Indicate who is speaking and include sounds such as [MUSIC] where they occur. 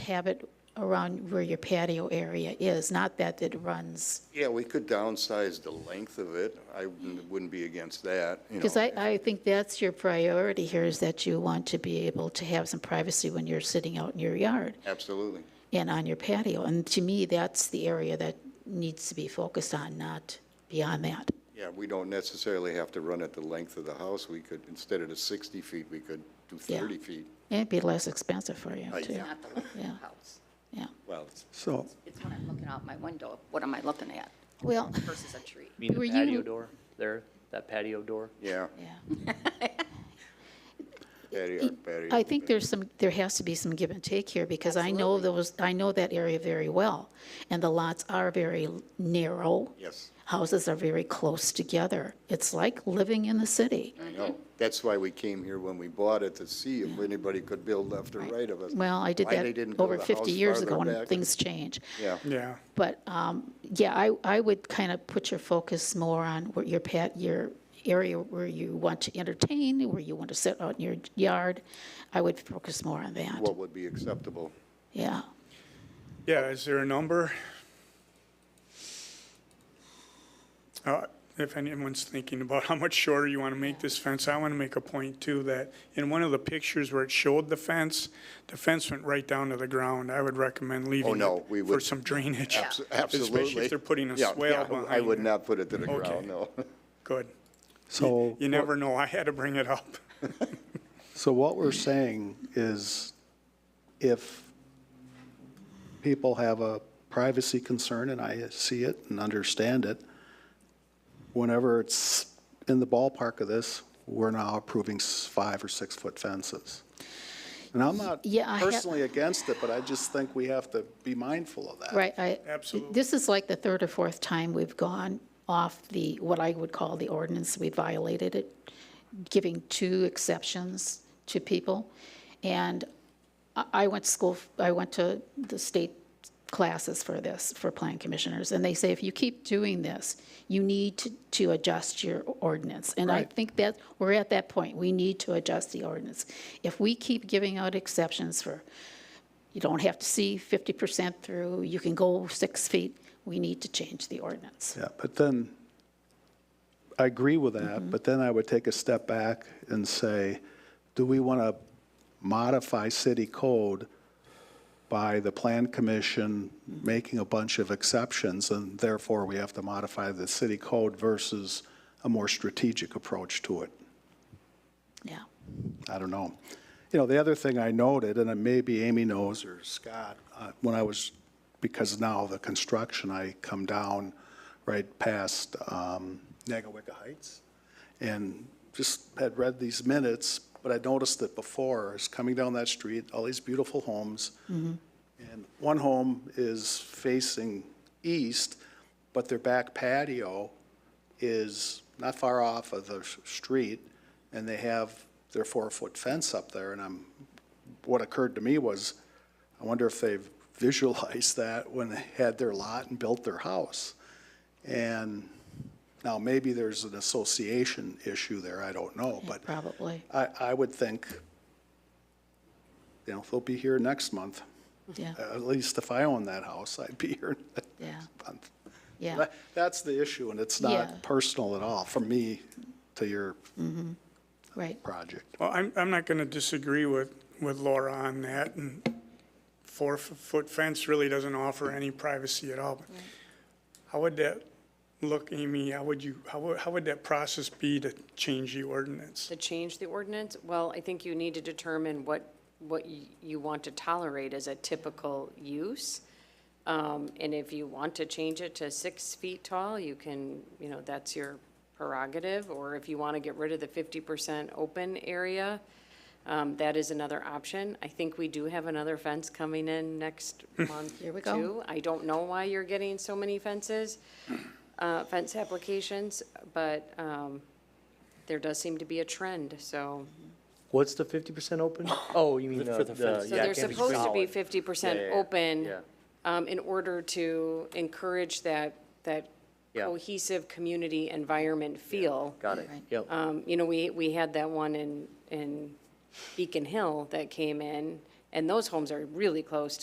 Speaker 1: have it around where your patio area is, not that it runs.
Speaker 2: Yeah, we could downsize the length of it. I wouldn't wouldn't be against that, you know.
Speaker 1: Because I, I think that's your priority here, is that you want to be able to have some privacy when you're sitting out in your yard
Speaker 2: Absolutely.
Speaker 1: and on your patio. And to me, that's the area that needs to be focused on, not beyond that.
Speaker 2: Yeah, we don't necessarily have to run it the length of the house. We could, instead of the 60 feet, we could do
Speaker 1: Yeah.
Speaker 2: 30 feet.
Speaker 1: It'd be less expensive for you,
Speaker 2: I-
Speaker 1: too.
Speaker 2: yeah.
Speaker 3: Not the length of
Speaker 1: Yeah.
Speaker 3: the house.
Speaker 1: Yeah.
Speaker 2: Well, it's-
Speaker 4: So,
Speaker 3: It's when I'm looking out my window, what am I looking at
Speaker 1: Well,
Speaker 3: versus a tree?
Speaker 5: You mean
Speaker 1: Were
Speaker 5: the patio
Speaker 1: you-
Speaker 5: door there, that patio door?
Speaker 2: yeah,
Speaker 1: yeah.
Speaker 2: patio, patio.
Speaker 1: I think there's some, there has to be some give and take here, because I know those, I know that area very well, and the lots are very narrow.
Speaker 2: Yes.
Speaker 1: Houses are very close together. It's like living in the city.
Speaker 2: I know. That's why we came here when we bought it, to see if anybody could build left or right of us.
Speaker 1: Well, I did
Speaker 2: Why they didn't
Speaker 1: that
Speaker 2: build
Speaker 1: over
Speaker 2: the
Speaker 1: 50
Speaker 2: house
Speaker 1: years
Speaker 2: farther
Speaker 1: ago, and
Speaker 2: back.
Speaker 1: things change.
Speaker 2: Yeah,
Speaker 4: yeah,
Speaker 1: But, um, yeah, I, I would kind of put your focus more on what your pat, your area where you want to entertain, where you want to sit out in your yard. I would focus more on that,
Speaker 2: what would be acceptable?
Speaker 1: yeah.
Speaker 4: yeah, is there a number? Uh, If anyone's thinking about how much shorter you want to make this fence, I want to make a point too, that in one of the pictures where it showed the fence, the fence went right down to the ground. I would recommend leaving
Speaker 2: Oh, no, we
Speaker 4: it for
Speaker 2: would-
Speaker 4: some drainage.
Speaker 2: Abso- Absolutely.
Speaker 4: Especially if they're putting a
Speaker 2: Yeah,
Speaker 4: swale
Speaker 2: yeah,
Speaker 4: behind
Speaker 2: I would
Speaker 4: it.
Speaker 2: not put it to the
Speaker 4: Okay.
Speaker 2: ground, no. [LAUGHS]
Speaker 4: Good.
Speaker 6: So,
Speaker 4: You never know, I had to bring it up.
Speaker 6: so what we're saying is if people have a privacy concern, and I see it and understand it, whenever it's in the ballpark of this, we're now approving s- five or six-foot fences. And I'm not
Speaker 1: Yeah, I ha-
Speaker 6: personally against it, but I just think we have to be mindful of that.
Speaker 1: Right, I.
Speaker 4: Absolutely.
Speaker 1: This is like the third or fourth time we've gone off the, what I would call the ordinance, we violated it, giving two exceptions to people. And I, I went to school, I went to the state classes for this, for plan commissioners, and they say, if you keep doing this, you need to, to adjust your ordinance. And I
Speaker 6: Right.
Speaker 1: think that, we're at that point, we need to adjust the ordinance. If we keep giving out exceptions for you don't have to see 50% through, you can go six feet, we need to change the ordinance.
Speaker 6: Yeah, but then, I agree with that, but then I would take a step back and say, do we want to modify city code by the plan commission making a bunch of exceptions, and therefore we have to modify the city code versus a more strategic approach to it?
Speaker 1: Yeah.
Speaker 6: I don't know. You know, the other thing I noted, and it maybe Amy knows or Scott, uh, when I was, because now the construction, I come down right past um, Nagawicca Heights and just had read these minutes, but I noticed it before, is coming down that street, all these beautiful homes. And one home is facing east, but their back patio is not far off of the s- street, and they have their four-foot fence up there, and I'm, what occurred to me was, I wonder if they've [LAUGHS] visualized that when they had their lot and built their house. And now, maybe there's an association issue there, I don't know, but
Speaker 1: Probably,
Speaker 6: I, I would think, you know, they'll be here next month.
Speaker 1: yeah,
Speaker 6: At least if I owned that house, I'd be here
Speaker 1: yeah,
Speaker 6: next month.
Speaker 1: yeah.
Speaker 6: That- That's the issue, and it's
Speaker 1: Yeah.
Speaker 6: not personal at all, from me to your
Speaker 1: Right,
Speaker 6: project.
Speaker 4: Well, I'm, I'm not going to disagree with, with Laura on that, and four-foot fence really doesn't offer any privacy at all. How would that look, Amy, how would you, how would, how would that process be to change the ordinance?
Speaker 7: To change the ordinance? Well, I think you need to determine what, what y- you want to tolerate as a typical use. Um, And if you want to change it to six feet tall, you can, you know, that's your prerogative. Or if you want to get rid of the fifty percent open area, um, that is another option. I think we do have another fence coming in next month,
Speaker 1: Here we go.
Speaker 7: too. I don't know why you're getting so many fences, uh, fence applications, but um, there does seem to be a trend, so.
Speaker 5: What's the fifty percent open? Oh, you mean the, the,
Speaker 7: So
Speaker 5: yeah,
Speaker 7: they're
Speaker 5: it can't be
Speaker 7: supposed to be
Speaker 5: solid.
Speaker 7: fifty percent
Speaker 5: Yeah, yeah, yeah.
Speaker 7: open
Speaker 5: Yeah.
Speaker 7: um, in order to encourage that, that
Speaker 5: Yeah.
Speaker 7: cohesive community environment feel.
Speaker 5: Got it,
Speaker 1: Right.
Speaker 5: yep.
Speaker 7: Um, You know, we, we had that one in, in Beacon Hill that came in, and those homes are really close